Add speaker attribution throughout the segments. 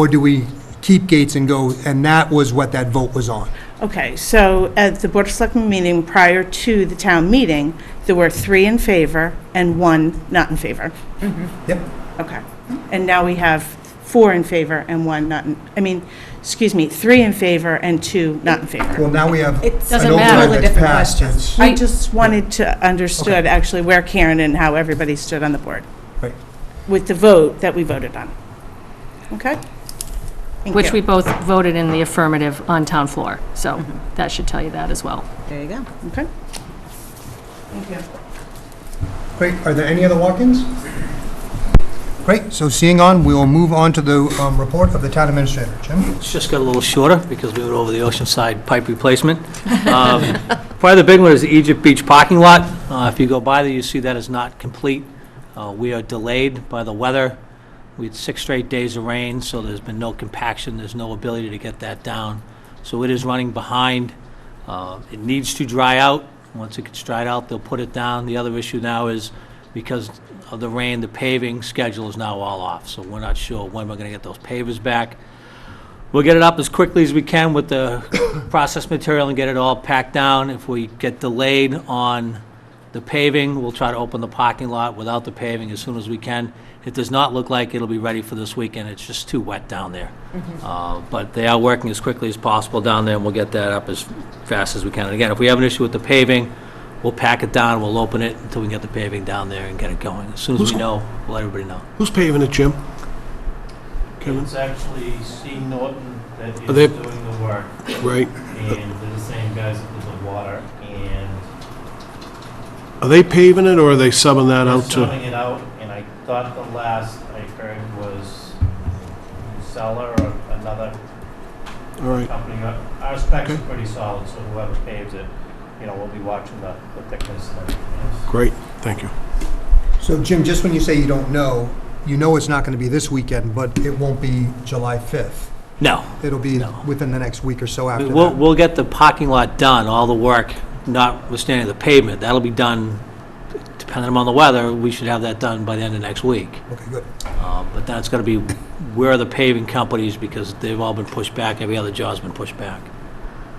Speaker 1: Or do we keep Gates and go, and that was what that vote was on?
Speaker 2: Okay, so at the Board of Selectmen meeting prior to the town meeting, there were three in favor and one not in favor.
Speaker 1: Yep.
Speaker 2: Okay. And now we have four in favor and one not, in I mean, excuse me, three in favor and two not in favor.
Speaker 1: Well, now we have.
Speaker 3: It doesn't
Speaker 1: an override
Speaker 3: matter. Totally
Speaker 1: that's
Speaker 3: different
Speaker 1: passed
Speaker 3: questions.
Speaker 1: that's-
Speaker 2: I just wanted to understood actually where Karen and how everybody stood on the board
Speaker 1: Right.
Speaker 2: with the vote that we voted on. Okay? Thank
Speaker 4: which
Speaker 2: you.
Speaker 4: we both voted in the affirmative on town floor. So that should tell you that as well.
Speaker 3: There you go.
Speaker 2: Okay. Thank you.
Speaker 1: Great, are there any other walk-ins? Great, so seeing on, we will move on to the um, report of the town administrator. Jim?
Speaker 5: It's just got a little shorter because we were over the Oceanside pipe replacement. Um, Probably the big one is the Egypt Beach parking lot. Uh, If you go by there, you see that is not complete. Uh, We are delayed by the weather. We had six straight days of rain, so there's been no compaction, there's no ability to get that down. So it is running behind. Uh, It needs to dry out. Once it gets dried out, they'll put it down. The other issue now is because of the rain, the paving schedule is now all off, so we're not sure when we're going to get those pavers back. We'll get it up as quickly as we can with the process material and get it all packed down. If we get delayed on the paving, we'll try to open the parking lot without the paving as soon as we can. It does not look like it'll be ready for this weekend, it's just too wet down there. Uh, But they are working as quickly as possible down there, and we'll get that up as fast as we can. And again, if we have an issue with the paving, we'll pack it down, we'll open it until we get the paving down there and get it going. As soon as we know, we'll let everybody know.
Speaker 6: Who's paving it, Jim? Kevin?
Speaker 7: It's actually Steve Norton that is
Speaker 6: Are they-
Speaker 7: doing the work,
Speaker 6: Right.
Speaker 7: and they're the same guys that did the water, and
Speaker 6: Are they paving it, or are they subbing that
Speaker 7: they're
Speaker 6: out to?
Speaker 7: selling it out, and I thought the last I heard was seller or another
Speaker 6: All right,
Speaker 7: company. Our our specs are
Speaker 6: Okay.
Speaker 7: pretty solid, so whoever paves it, you know, we'll be watching the the thickness and everything else.
Speaker 6: great, thank you.
Speaker 1: So Jim, just when you say you don't know, you know it's not going to be this weekend, but it won't be July 5th.
Speaker 5: No,
Speaker 1: It'll be
Speaker 5: No.
Speaker 1: within the next week or so after that.
Speaker 5: We'll, we'll get the parking lot done, all the work, notwithstanding the pavement. That'll be done, depending on the weather, we should have that done by the end of next week.
Speaker 1: Okay, good.
Speaker 5: Uh, But that's gonna be where the paving companies, because they've all been pushed back, every other job's been pushed back.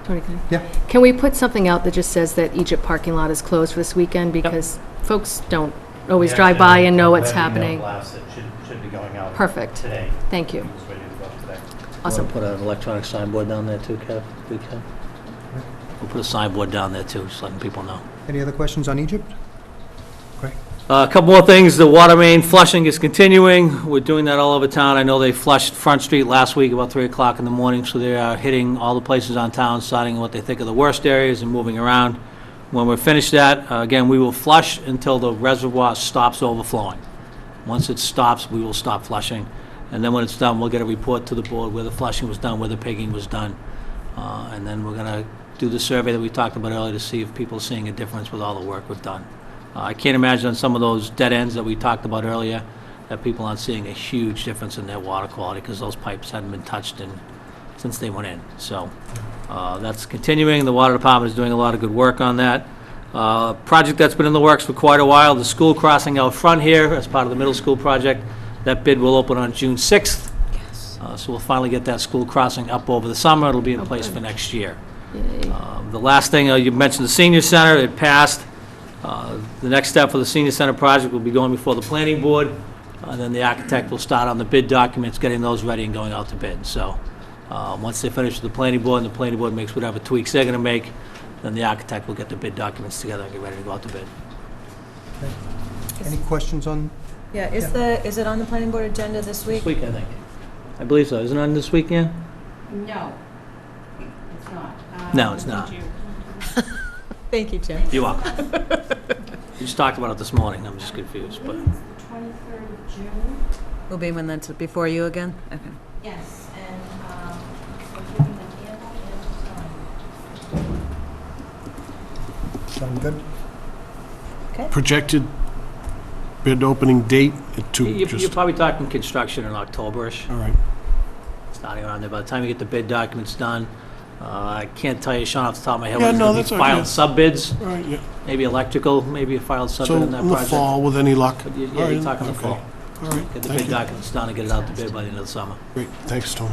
Speaker 4: Tony, can I-
Speaker 1: Yeah.
Speaker 4: Can we put something out that just says that Egypt parking lot is closed for this weekend? Because folks don't always
Speaker 7: Yeah,
Speaker 4: drive by and know what's
Speaker 7: that email
Speaker 4: happening.
Speaker 7: blast that should, should be going out
Speaker 4: Perfect.
Speaker 7: today.
Speaker 4: Thank you.
Speaker 7: It's ready to go today.
Speaker 4: Awesome.
Speaker 5: Put an electronic signboard down there too, Kev, we can. We'll put a signboard down there too, just letting people know.
Speaker 1: Any other questions on Egypt?
Speaker 5: Uh, A couple more things, the water main flushing is continuing, we're doing that all over town. I know they flushed Front Street last week about 3 o'clock in the morning, so they are hitting all the places on town, starting what they think are the worst areas and moving around. When we're finished that, uh, again, we will flush until the reservoir stops overflowing. Once it stops, we will stop flushing, and then when it's done, we'll get a report to the board where the flushing was done, where the pigging was done, Uh, and then we're going to do the survey that we talked about earlier to see if people are seeing a difference with all the work we've done. Uh, I can't imagine on some of those dead ends that we talked about earlier, that people aren't seeing a huge difference in their water quality, because those pipes hadn't been touched in, since they went in, so uh, that's continuing. The Water Department is doing a lot of good work on that. Uh, Project that's been in the works for quite a while, the school crossing out front here as part of the middle school project. That bid will open on June 6th. Uh, So we'll finally get that school crossing up over the summer. It'll be in place for next year. Um, The last thing, uh, you mentioned the senior center, it passed. Uh, The next step for the senior center project will be going before the planning board, and then the architect will start on the bid documents, getting those ready and going out to bid. So, uh, once they finish with the planning board, and the planning board makes whatever tweaks they're going to make, then the architect will get the bid documents together and get ready to go out to bid.
Speaker 1: Any questions on,
Speaker 3: Yeah, is the, is it on the planning board agenda this week?
Speaker 5: This week, I think. I believe so. Isn't it on this weekend?
Speaker 8: No, it's not. Uh,
Speaker 5: No, it's not.
Speaker 3: Thank you, Jim.
Speaker 5: You are. We just talked about it this morning. I'm just confused, but.
Speaker 8: Twenty-third of June,
Speaker 3: Will be when that's before you again? Okay.
Speaker 8: yes, and um, we're giving the handle and time.
Speaker 1: sound good?
Speaker 6: Projected bid opening date at two,
Speaker 5: You- You're
Speaker 6: just,
Speaker 5: probably talking construction in October-ish.
Speaker 6: all right.
Speaker 5: starting around there. By the time you get the bid documents done, uh, I can't tell you, Sean, off the top of my head,
Speaker 6: Yeah,
Speaker 5: whether
Speaker 6: no,
Speaker 5: it's
Speaker 6: that's all
Speaker 5: going to
Speaker 6: right, yeah.
Speaker 5: be filed sub-bids,
Speaker 6: All right, yeah.
Speaker 5: maybe electrical, maybe a filed sub-bid
Speaker 6: So
Speaker 5: on that
Speaker 6: in the
Speaker 5: project.
Speaker 6: fall, with any luck?
Speaker 5: But you-
Speaker 6: All
Speaker 5: Yeah,
Speaker 6: right,
Speaker 5: you're talking the
Speaker 6: okay.
Speaker 5: fall.
Speaker 6: all right.
Speaker 5: Get the
Speaker 6: Thank
Speaker 5: bid
Speaker 6: you.
Speaker 5: documents done and get it out to bid by the end of the summer.
Speaker 6: Great, thanks, Tom.